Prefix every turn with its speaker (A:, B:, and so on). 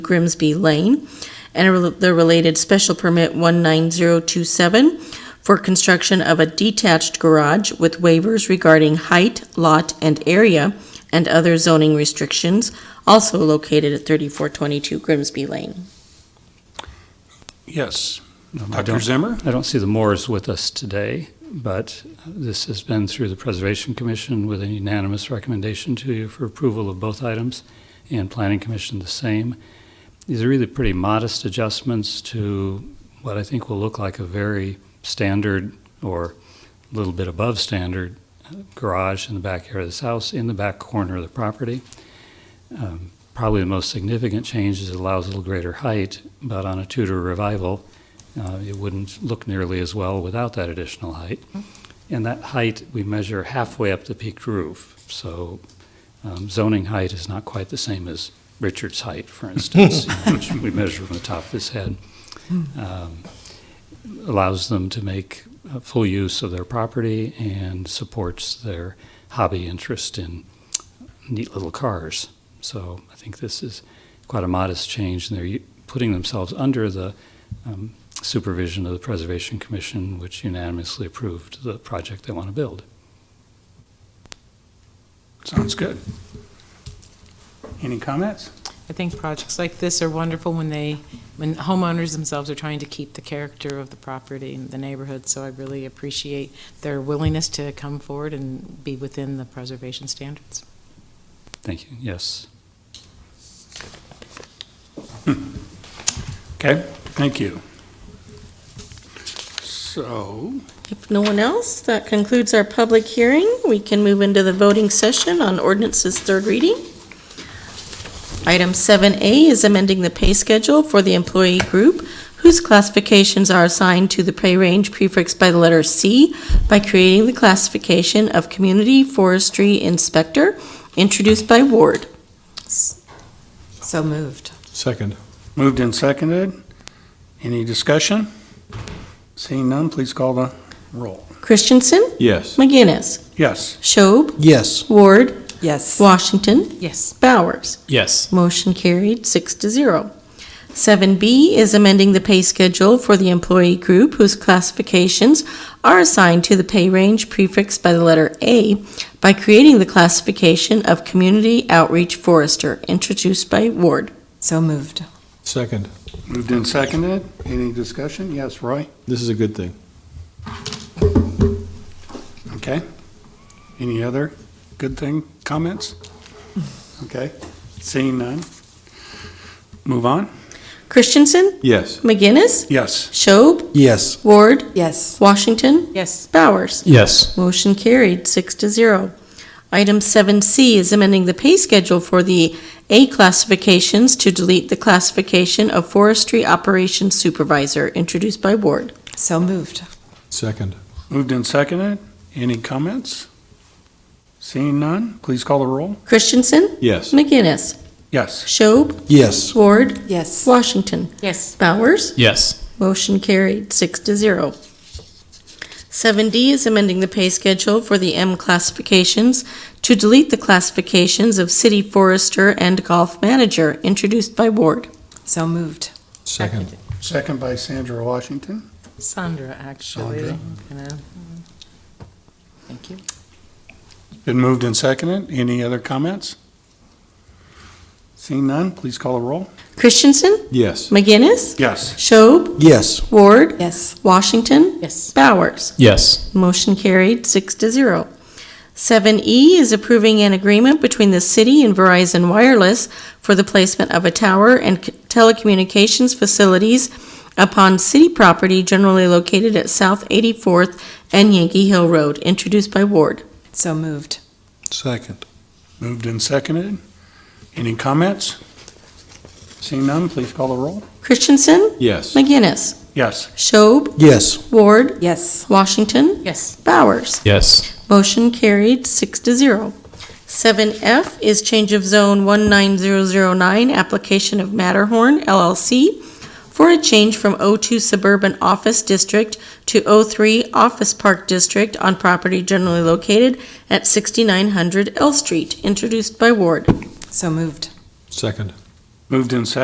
A: Grimsby Lane, and a rel- the related special permit 19027 for construction of a detached garage with waivers regarding height, lot, and area, and other zoning restrictions, also located at 3422 Grimsby Lane.
B: Yes.
C: Um, I
B: Dr.
C: don't,
B: Zimmer?
C: I don't see the Moores with us today, but uh, this has been through the Preservation Commission with a unanimous recommendation to you for approval of both items, and Planning Commission the same. These are really pretty modest adjustments to what I think will look like a very standard or a little bit above standard uh, garage in the backyard of this house, in the back corner of the property. Um, Probably the most significant change is it allows a little greater height, but on a Tudor revival, uh, It wouldn't look nearly as well without that additional height. And that height, we measure halfway up the peaked roof. So um, zoning height is not quite the same as Richard's height, for instance, you know, which we measure from the top of his head. Um, Allows them to make uh, full use of their property and supports their hobby interest in neat little cars. So I think this is quite a modest change, and they're u- putting themselves under the um, supervision of the Preservation Commission, which unanimously approved the project they want to build.
B: Sounds good. Any comments?
D: I think projects like this are wonderful when they, when homeowners themselves are trying to keep the character of the property and the neighborhood, so I really appreciate their willingness to come forward and be within the preservation standards.
C: Thank you. Yes.
B: Okay, thank you. So,
A: If no one else, that concludes our public hearing. We can move into the voting session on ordinance's third reading. Item 7A is amending the pay schedule for the employee group whose classifications are assigned to the pay range prefixed by the letter C by creating the classification of Community Forestry Inspector, introduced by Ward.
E: So moved.
F: Second.
B: moved and seconded. Any discussion? Seeing none, please call the roll.
A: Christensen,
F: Yes.
A: McGinnis,
B: Yes,
A: Schob,
F: Yes.
A: Ward,
E: Yes.
A: Washington,
D: Yes,
A: Bowers.
F: Yes.
A: Motion carried, six to zero. Seven B is amending the pay schedule for the employee group whose classifications are assigned to the pay range prefixed by the letter A by creating the classification of Community Outreach Forester, introduced by Ward.
E: So moved.
F: Second.
B: moved and seconded. Any discussion? Yes, Roy?
F: This is a good thing.
B: Okay. Any other good thing, comments? Okay, seeing none. Move on.
A: Christensen,
F: Yes.
A: McGinnis,
B: Yes,
A: Schob,
F: Yes.
A: Ward,
E: Yes.
A: Washington,
D: yes,
A: Bowers.
F: Yes.
A: Motion carried, six to zero. Item 7C is amending the pay schedule for the A classifications to delete the classification of Forestry Operations Supervisor, introduced by Ward.
E: So moved.
F: Second.
B: moved and seconded. Any comments? Seeing none, please call the roll.
A: Christensen,
F: Yes.
A: McGinnis,
B: Yes.
A: Schob,
F: Yes.
A: Ward,
E: Yes.
A: Washington,
D: yes,
A: Bowers.
F: Yes.
A: Motion carried, six to zero. Seven D is amending the pay schedule for the M classifications to delete the classifications of City Forester and Golf Manager, introduced by Ward.
E: So moved.
F: Second.
B: Second by Sandra Washington.
D: Sandra, actually.
B: Sandra.
D: you know. Thank you.
B: Been moved and seconded. Any other comments? Seeing none, please call the roll.
A: Christensen,
F: Yes.
A: McGinnis,
B: Yes.
A: Schob,
F: Yes.
A: Ward,
E: Yes.
A: Washington,
D: Yes,
A: Bowers.
F: Yes.
A: Motion carried, six to zero. Seven E is approving an agreement between the city and Verizon Wireless for the placement of a tower and c- telecommunications facilities upon city property generally located at South 84th and Yankee Hill Road, introduced by Ward.
E: So moved.
F: Second.
B: Moved and seconded. Any comments? Seeing none, please call the roll.
A: Christensen,
F: Yes.
A: McGinnis,
B: Yes.
A: Schob,
F: Yes.
A: Ward,
E: Yes.
A: Washington,
D: yes,
A: Bowers.
F: Yes.
A: Motion carried, six to zero. Seven F is change of zone 19009, application of Matterhorn LLC for a change from O2 Suburban Office District to O3 Office Park District on property generally located at 6900 L Street, introduced by Ward.
E: So moved.
F: Second.
B: Moved and seconded.